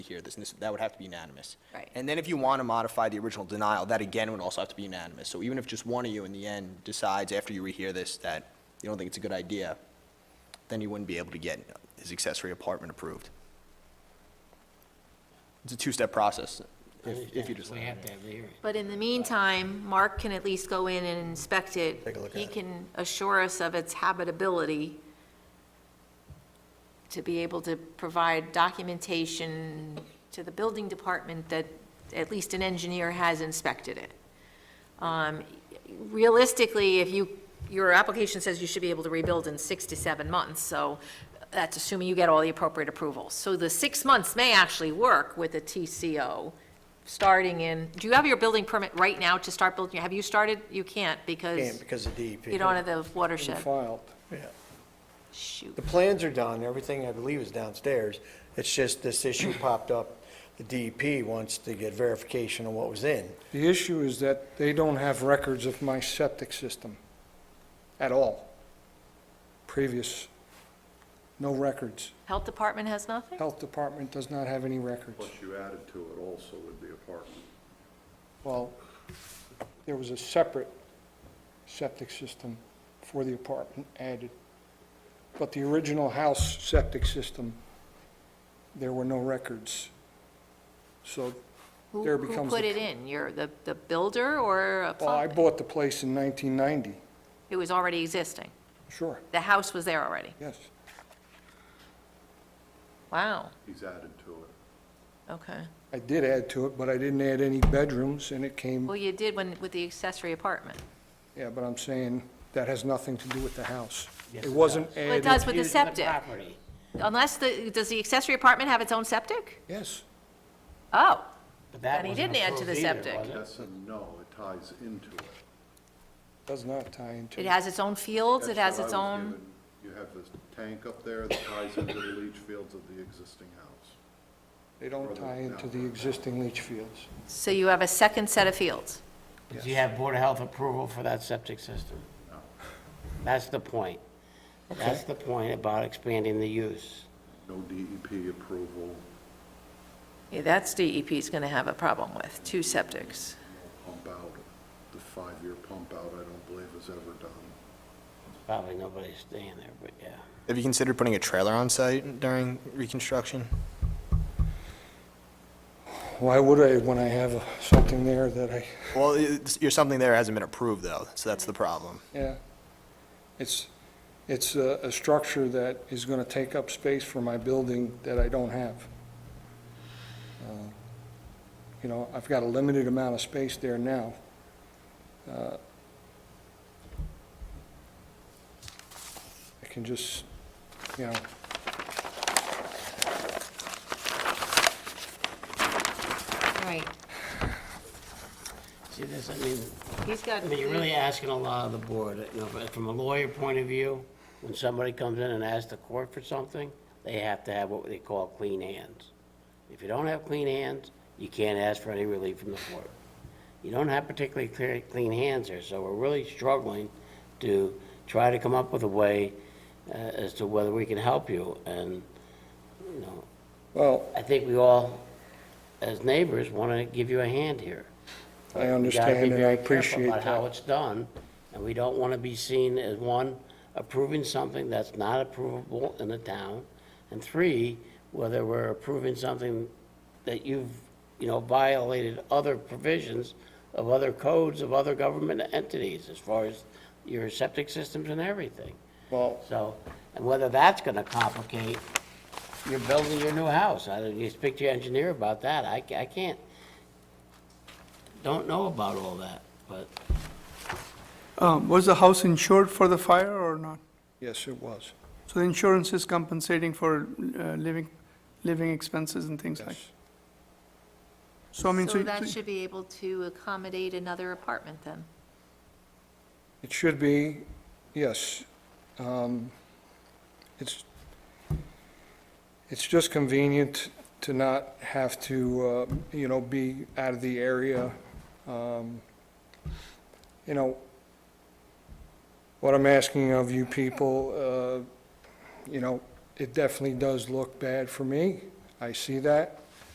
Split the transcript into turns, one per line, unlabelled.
here, this, and this, that would have to be unanimous.
Right.
And then if you want to modify the original denial, that again would also have to be unanimous. So even if just one of you in the end decides after you rehear this that you don't think it's a good idea, then you wouldn't be able to get his accessory apartment approved. It's a two-step process, if, if you just.
We have to have the hearing.
But in the meantime, Mark can at least go in and inspect it.
Take a look
He
at it.
can assure us of its habitability to be able to provide documentation to the building department that at least an engineer has inspected it. Um, Realistically, if you, your application says you should be able to rebuild in six to seven months, so that's assuming you get all the appropriate approvals. So the six months may actually work with a TCO starting in, do you have your building permit right now to start building? Have you started? You can't
Can't
because
because of E DEP.
you don't have the
Been
watershed.
Filed, yeah.
Shoot.
The plans are done, everything I believe is downstairs. It's just this issue popped up. The DEP wants to get verification on what was in.
The issue is that they don't have records of my septic system at all. Previous, no records.
Health department has nothing?
Health Department does not have any records.
Plus you added to it also with the apartment.
Well, there was a separate septic system for the apartment added, but the original house septic system, there were no records. So
Who,
there
who
becomes
put
the-
it in? Your, the, the builder or a
Well, I
something?
bought the place in 1990,
It was already existing.
sure,
The house was there already.
yes.
Wow,
He's added to it.
okay.
I did add to it, but I didn't add any bedrooms, and it came,
Well, you did when, with the accessory apartment.
yeah, but I'm saying that has nothing to do with the house. It wasn't
Well, it
added.
does with the
Use
septic.
property.
Unless the, does the accessory apartment have its own septic?
Yes,
Oh,
But that
And he
wasn't
didn't add to the
approved either,
septic.
was it?
Yes and no, it ties into it.
does not tie into.
it has its own fields, it
That's
has
what
its
I was
own,
given. You have this tank up there that ties into the leach fields of the existing house.
They don't tie into the existing leach fields.
so you have a second set of fields.
Did you have Board of Health approval for that septic system? No. That's the point. That's the point about expanding the use.
No DEP approval,
Yeah, that's DEP's gonna have a problem with, two septics.
pump out, the five-year pump out, I don't believe is ever done.
Probably nobody's staying there, but yeah.
Have you considered putting a trailer on site during reconstruction?
Why would I when I have something there that I,
Well, it's, you're, something there hasn't been approved though, so that's the problem.
yeah. It's, it's a, a structure that is gonna take up space for my building that I don't have. Uh, You know, I've got a limited amount of space there now. Uh, I can just, you know,
Right,
See, this, I mean,
he's got.
I mean, you're really asking a lot of the board, you know, but from a lawyer point of view, when somebody comes in and asks the court for something, they have to have what they call clean hands. If you don't have clean hands, you can't ask for any relief from the court. You don't have particularly clear, clean hands here, so we're really struggling to try to come up with a way uh, as to whether we can help you, and, you know,
well,
I think we all, as neighbors, want to give you a hand here.
I
We gotta be
understand and I
very careful
appreciate
About how
that.
it's done, and we don't want to be seen as, one, approving something that's not approvable in the town, and three, whether we're approving something that you've, you know, violated other provisions of other codes of other government entities as far as your septic systems and everything.
Well,
So, and whether that's gonna complicate your building your new house, I, you speak to your engineer about that, I, ca- I can't, don't know about all that, but
Um, Was the house insured for the fire or not?
yes, it was,
So the insurance is compensating for uh, living, living expenses and things like?
yes.
So I mean, so,
So that
so-
should be able to accommodate another apartment then.
It should be, yes. Um, It's, it's just convenient to not have to, uh, you know, be out of the area. Um, You know, what I'm asking of you people, uh, you know, it definitely does look bad for me. I see that.